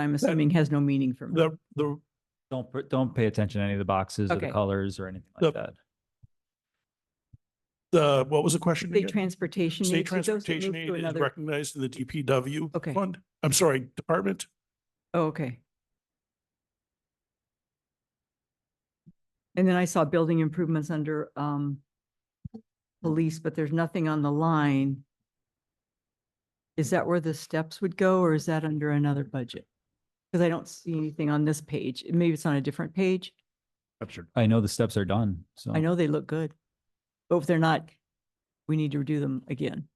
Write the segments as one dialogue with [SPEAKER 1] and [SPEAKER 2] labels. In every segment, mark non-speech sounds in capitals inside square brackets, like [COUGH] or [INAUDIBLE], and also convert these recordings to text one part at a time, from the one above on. [SPEAKER 1] I'm assuming has no meaning for me.
[SPEAKER 2] The, the,
[SPEAKER 3] Don't, pr- don't pay attention to any of the boxes or the
[SPEAKER 1] Okay.
[SPEAKER 3] colors or anything like
[SPEAKER 2] The-
[SPEAKER 3] that.
[SPEAKER 2] the, what was the question?
[SPEAKER 1] State
[SPEAKER 2] again?
[SPEAKER 1] transportation.
[SPEAKER 2] State
[SPEAKER 1] aid, did those get
[SPEAKER 2] transportation
[SPEAKER 1] moved
[SPEAKER 2] aid
[SPEAKER 1] to
[SPEAKER 2] is
[SPEAKER 1] another-
[SPEAKER 2] recognized in the DPW
[SPEAKER 1] Okay.
[SPEAKER 2] fund. I'm sorry, department.
[SPEAKER 1] Oh, okay. And then I saw building improvements under, um, police, but there's nothing on the line. Is that where the steps would go or is that under another budget? Because I don't see anything on this page. Maybe it's on a different page.
[SPEAKER 3] I know the steps are done, so.
[SPEAKER 1] I
[SPEAKER 2] Oh.
[SPEAKER 1] know they look good. But if they're not, we need to do them again.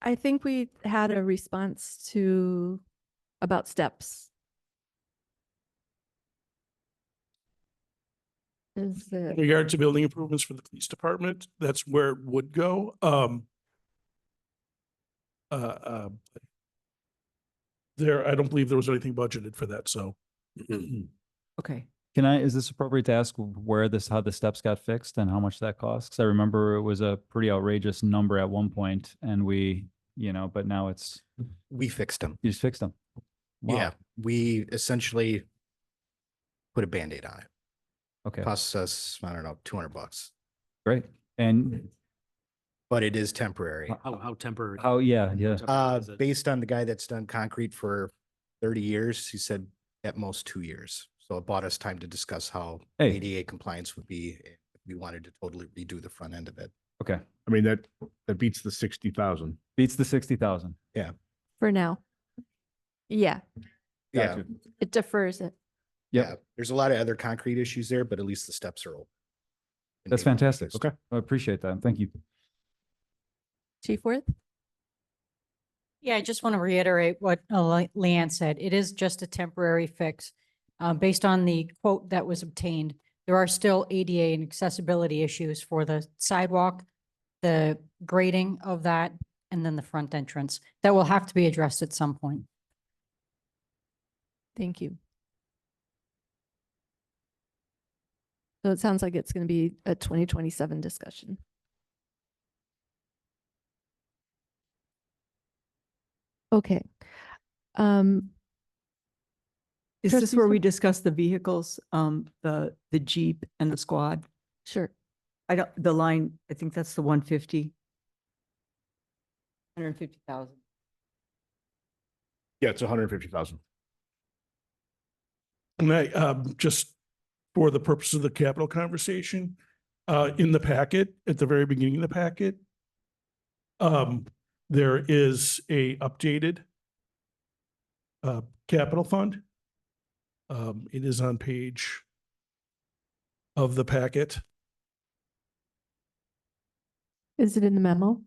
[SPEAKER 4] I think we had a response to about steps. Is
[SPEAKER 2] In
[SPEAKER 4] it,
[SPEAKER 2] regard to building improvements for the police department, that's where it would go. Um. Uh, uh. There, I don't believe there was anything budgeted for that,
[SPEAKER 5] [CLEARS THROAT]
[SPEAKER 2] so.
[SPEAKER 1] Okay.
[SPEAKER 3] Can I, is this appropriate to ask where this, how the steps got fixed and how much that costs? 'Cause I remember it was a pretty outrageous number at one point and we, you know, but now it's,
[SPEAKER 6] we fixed them.
[SPEAKER 3] you just fixed them. Wow.
[SPEAKER 6] Yeah, we essentially put a Band-Aid on it.
[SPEAKER 3] Okay,
[SPEAKER 6] Costs us, I don't know, two hundred bucks,
[SPEAKER 3] great. And
[SPEAKER 6] but it is temporary.
[SPEAKER 3] Wow.
[SPEAKER 7] How, how temporary?
[SPEAKER 3] how, yeah, yeah.
[SPEAKER 7] temporary
[SPEAKER 6] Uh,
[SPEAKER 7] is it?
[SPEAKER 6] based on the guy that's done concrete for thirty years, he said at most two years. So it bought us time to discuss how
[SPEAKER 3] Hey.
[SPEAKER 6] ADA compliance would be. if We wanted to totally redo the front end of it.
[SPEAKER 3] Okay.
[SPEAKER 5] I mean, that, that beats the sixty thousand.
[SPEAKER 3] Beats the 60,000.
[SPEAKER 4] for now? Yeah,
[SPEAKER 6] Yeah,
[SPEAKER 3] Gotcha.
[SPEAKER 4] it defers it.
[SPEAKER 3] Yep.
[SPEAKER 6] Um, yeah. There's a lot of other concrete issues there, but at least the steps are open. And
[SPEAKER 3] That's
[SPEAKER 6] they were
[SPEAKER 3] fantastic.
[SPEAKER 6] fixed.
[SPEAKER 3] Okay. I appreciate that. Thank you.
[SPEAKER 4] Chief Worth?
[SPEAKER 8] Yeah, I just want to reiterate what uh, Le- Leanne said. It is just a temporary fix. Uh, Based on the quote that was obtained, there are still ADA and accessibility issues for the sidewalk, the grading of that, and then the front entrance. That will have to be addressed at some point.
[SPEAKER 4] Thank you. So it sounds like it's going to be a 2027 discussion. Okay. Um,
[SPEAKER 1] Is this
[SPEAKER 4] Trustee
[SPEAKER 1] where
[SPEAKER 4] Sol-
[SPEAKER 1] we discuss the vehicles, um, the, the Jeep and the squad?
[SPEAKER 4] sure.
[SPEAKER 1] I don't, the line, I think that's the one fifty. Hundred and fifty thousand.
[SPEAKER 5] Yeah, it's hundred and fifty thousand.
[SPEAKER 2] And I, um, just for the purpose of the capital conversation, uh, in the packet, at the very beginning of the packet, um, there is a updated uh, capital fund. Um, it is on page of the packet.
[SPEAKER 4] Is it in the memo?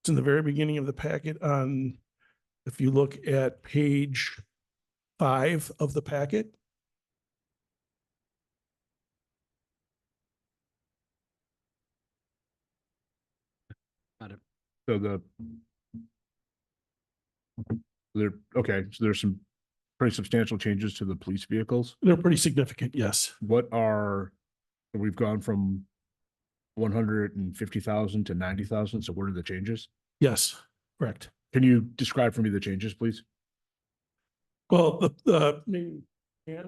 [SPEAKER 2] It's in the very beginning of the packet on, if you look at page five of the packet.
[SPEAKER 5] So the there, okay, so there's some pretty substantial changes to the police vehicles.
[SPEAKER 2] They're pretty significant, yes.
[SPEAKER 5] What are, we've gone from one hundred and fifty thousand to ninety thousand, so what are the changes?
[SPEAKER 2] Yes, correct.
[SPEAKER 5] Can you describe for me the changes, please?
[SPEAKER 2] Well, the, the, maybe, yeah.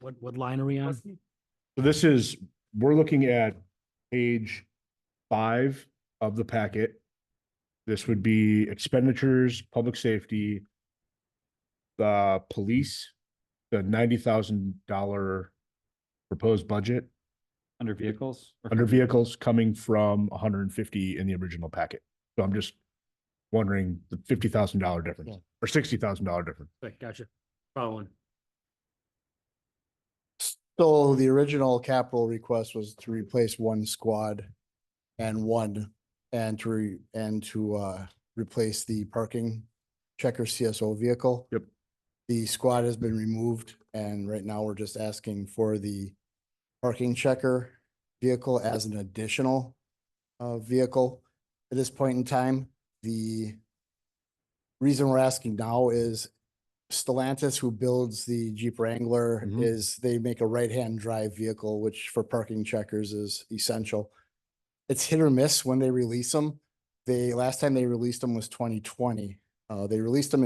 [SPEAKER 7] What, what line are we on?
[SPEAKER 5] So this is, we're looking at page five of the packet. This would be expenditures, public safety, the police, the ninety thousand dollar proposed budget
[SPEAKER 3] Under vehicles? or-
[SPEAKER 5] under vehicles coming from hundred and fifty in the original packet. So I'm just wondering the fifty thousand dollar difference or sixty thousand dollar difference.
[SPEAKER 7] Okay, Gotcha. Following.
[SPEAKER 9] So the original capital request was to replace one squad and one, and to, re- and to, uh, replace the parking checker CSO vehicle.
[SPEAKER 5] Yep.
[SPEAKER 9] The squad has been removed and right now we're just asking for the parking checker vehicle as an additional, uh, vehicle. At this point in time, the reason we're asking now is Stellantis, who builds the Jeep Wrangler,
[SPEAKER 5] Mhm.
[SPEAKER 9] is they make a right-hand drive vehicle, which for parking checkers is essential. It's hit or miss when they release them. They, last time they released them was twenty twenty. Uh, they released them